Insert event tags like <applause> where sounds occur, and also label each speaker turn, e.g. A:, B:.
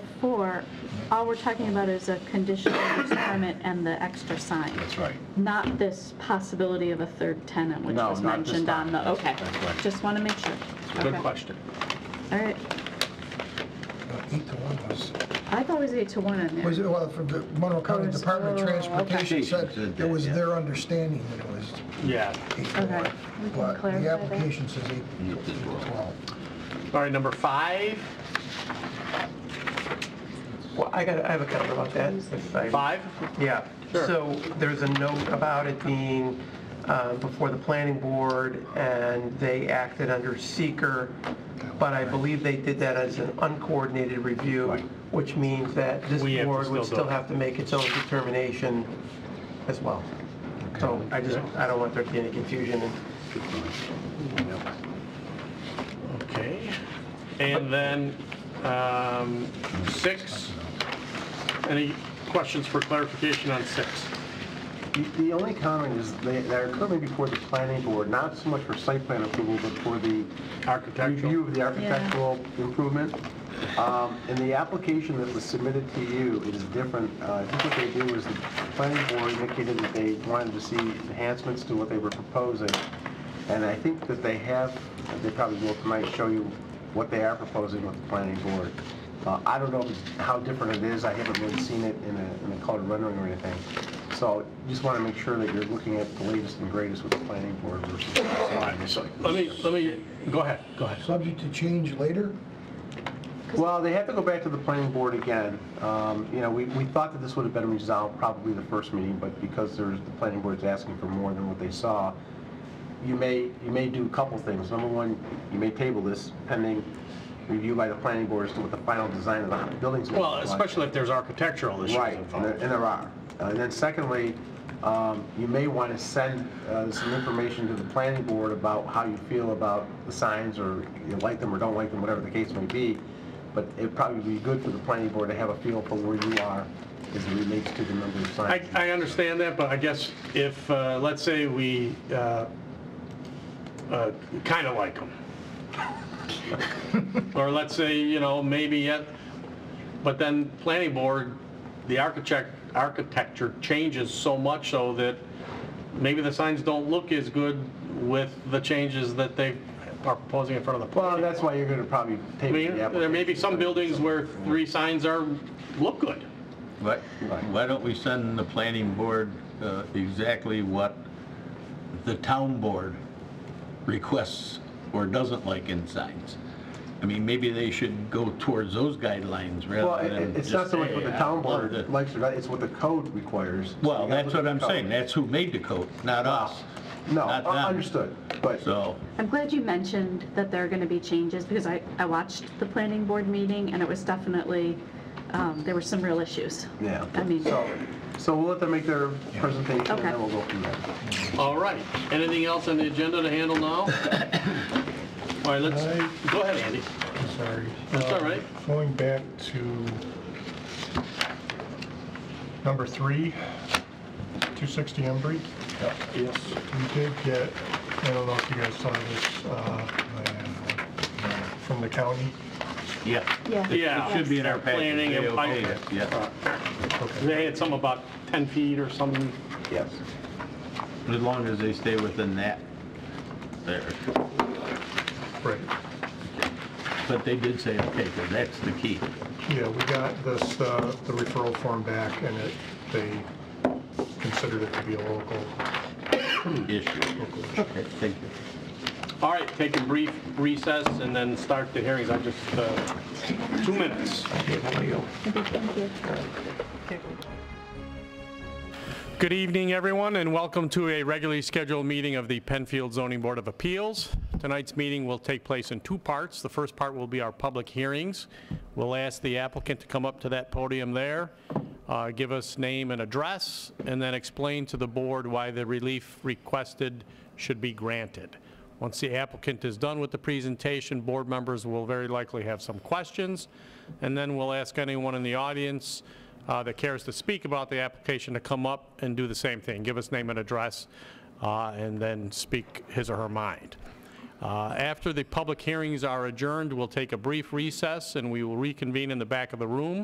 A: before, all we're talking about is a conditional use <coughs> permit and the extra sign,
B: That's right.
A: not this possibility of a third tenant, which
B: No,
A: was
B: not this
A: mentioned on the,
B: time.
A: okay.
B: That's right.
A: Just want to make sure.
B: Good
A: Okay.
B: question.
A: All right.
C: Eight to one was,
A: I've always eight to one on there.
C: was it, well, from the Monroe
A: Oh,
C: County
A: it's-
C: Department of
A: oh, okay.
C: Transportation
B: Said
C: said
B: that,
C: it was
B: yeah.
C: their understanding that it was
D: Yeah.
C: eight to
A: Okay.
C: one.
A: We can
C: But
A: clarify
C: the
A: that.
C: application says eight
B: Eight to
C: to
B: twelve.
C: twelve.
D: All right, number five.
E: Well, I got, I have a comment about that. if I-
D: Five?
E: Yeah.
D: Sure.
E: So there's a note about it being uh, before the planning board, and they acted under seeker, but I believe they did that as an uncoordinated review,
B: Right.
E: which means that this
D: We have to
E: board
D: still
E: would
D: do
E: still
D: it.
E: have to make its own determination as well. So I just, I don't want there to be any confusion. and
D: Okay. And then um, six. Any questions for clarification on six?
F: The- The only comment is they they're coming before the planning board, not so much for site plan approval, but for the review
D: Architectural?
F: of the architectural improvement. Um, In the application that was submitted to you, it is different. Uh, I think what they do is the planning board indicated that they wanted to see enhancements to what they were proposing. And I think that they have, they probably will tonight show you what they are proposing with the planning board. Uh, I don't know how different it is. I haven't really seen it in a, in a colored rendering or anything. So just want to make sure that you're looking at the latest and greatest with the planning board versus.
D: Let me, let me, go ahead, go ahead.
C: Subject to change later?
F: Well, they have to go back to the planning board again. Um, You know, we, we thought that this would have been resolved probably the first meeting, but because there's, the planning board's asking for more than what they saw, you may, you may do a couple things. Number one, you may table this pending review by the planning board as to what the final design of the building's going to
D: Well, especially if there's architectural issues
F: Right, and there-
D: involved.
F: and there are. Uh, And then secondly, um, you may want to send uh, some information to the planning board about how you feel about the signs, or you like them or don't like them, whatever the case may be. But it'd probably be good for the planning board to have a feel for where you are as it relates to the number of
D: I,
F: signs.
D: I understand that, but I guess if, uh, let's say we kind of like
F: <laughs>
D: them. Or let's say, you know, maybe yet, but then planning board, the architect, architecture changes so much so that maybe the signs don't look as good with the changes that they are proposing in front of the.
F: Well, that's why you're going to probably
D: I
F: table
D: mean,
F: the application.
D: there may be some buildings where three signs are, look good.
B: Why why don't we send the planning board uh, exactly what the town board requests or doesn't like in signs? I mean, maybe they should go towards those guidelines
F: Well,
B: rather
F: it-
B: than
F: it-
B: just...
F: it's not so much what the
B: "Hey, I
F: town
B: love
F: board
B: the-"
F: likes or not, it's what the code requires.
B: Well,
F: You gotta
B: that's
F: look
B: what
F: at
B: I'm
F: the
B: saying,
F: code.
B: that's who made the code, not us.
F: No,
B: not them.
F: un- understood, but.
B: So,
A: I'm glad you mentioned that there are going to be changes because I, I watched the planning board meeting and it was definitely, um, there were some real issues.
F: Yeah.
A: I mean,
F: So, so we'll let them make their presentation, and
A: Okay.
F: then we'll go from there.
D: All right, anything else on the agenda to handle
B: <coughs>
D: now? All right, let's, go ahead, Andy.
G: I'm sorry.
D: That's all right.
G: Uh, Going back to number three, 260 Embry.
D: Yes.
G: We did get, I don't know if you guys saw this, uh, from the county.
B: yeah.
A: Yeah.
B: It-
D: Yeah.
B: It should be in our
D: Start planning
B: package, they
D: and pipe-
B: okayed it, yeah.
G: Okay.
D: They had some about 10 feet or something.
F: Yes.
B: As long as they stay within that, there.
G: Right.
B: But they did say, okay, 'cause that's the key.
G: Yeah, we got this, uh, the referral form back, and it, they considered it to be a local,
B: issue.
G: local issue.
B: Okay, thank you.
D: All right, take a brief recess and then start the hearings. I just, uh, two minutes. Good evening, everyone, and welcome to a regularly scheduled meeting of the Penfield Zoning Board of Appeals. Tonight's meeting will take place in two parts. The first part will be our public hearings. We'll ask the applicant to come up to that podium there, uh, give us name and address, and then explain to the board why the relief requested should be granted. Once the applicant is done with the presentation, board members will very likely have some questions, and then we'll ask anyone in the audience uh, that cares to speak about the application to come up and do the same thing, give us name and address, uh, and then speak his or her mind. Uh, After the public hearings are adjourned, we'll take a brief recess, and we will reconvene in the back of the room.